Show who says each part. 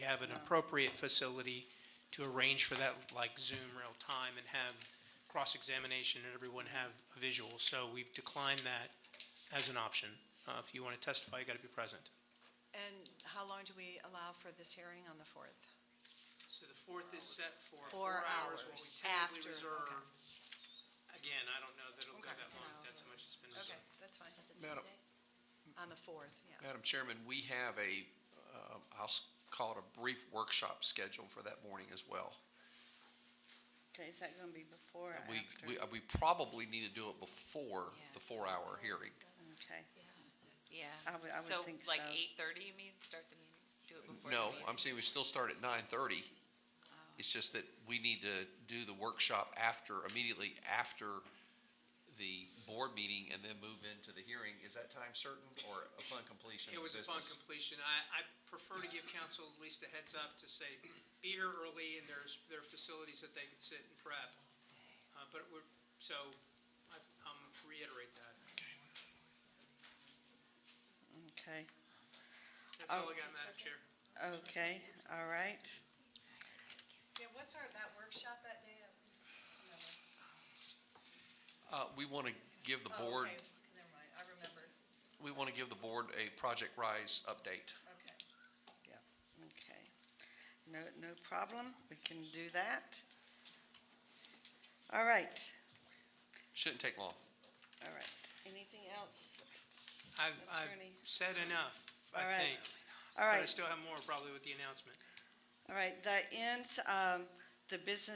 Speaker 1: we have an appropriate facility to arrange for that, like Zoom real time, and have cross-examination and everyone have a visual. So we've declined that as an option. Uh, If you want to testify, you got to be present.
Speaker 2: And how long do we allow for this hearing on the 4th?
Speaker 1: So the fourth is set for
Speaker 2: Four hours after, okay.
Speaker 1: Again, I don't know that it'll
Speaker 2: Okay.
Speaker 1: how much it's been.
Speaker 2: Okay, that's fine.
Speaker 3: Madam-
Speaker 2: On the 4th, yeah.
Speaker 3: Madam Chairman, we have a, uh, I'll s- call it a brief workshop scheduled for that morning as well.
Speaker 4: Okay, is that gonna be before or
Speaker 3: We,
Speaker 4: after?
Speaker 3: we, uh, we probably need to do it before
Speaker 5: Yeah.
Speaker 3: the four-hour hearing.
Speaker 4: Okay,
Speaker 5: Yeah.
Speaker 4: I would, I would think so.
Speaker 5: like eight thirty, you mean, start the meeting, do it before the
Speaker 3: No,
Speaker 5: meeting? Oh.
Speaker 3: I'm saying we still start at nine-thirty. It's just that we need to do the workshop after, immediately after the board meeting and then move into the hearing. Is that time certain or upon completion
Speaker 1: It
Speaker 3: of
Speaker 1: was
Speaker 3: business?
Speaker 1: upon completion. I, I prefer to give council at least a heads up to say, be here early, and there's, there are facilities that they can sit and prep. Uh, but we're, so, I, I'm reiterate that.
Speaker 4: Okay,
Speaker 1: That's
Speaker 4: Oh,
Speaker 1: all I got, Madam Chair.
Speaker 4: okay, all right.
Speaker 2: Yeah, what's our, that workshop that day?
Speaker 3: Uh, we want to give
Speaker 5: Oh,
Speaker 3: the board,
Speaker 2: Oh, Never mind, I remembered,
Speaker 3: we want to give the board a Project Rise update.
Speaker 2: okay.
Speaker 4: Okay, no, no problem, we can do that. All right,
Speaker 3: Shouldn't take long.
Speaker 4: all right, anything else,
Speaker 1: I've, I've
Speaker 4: attorney?
Speaker 1: said enough, I
Speaker 4: All right.
Speaker 1: think. But
Speaker 4: All
Speaker 1: I
Speaker 4: right,
Speaker 1: still have more probably with the announcement.
Speaker 4: all right, that ends, um, the business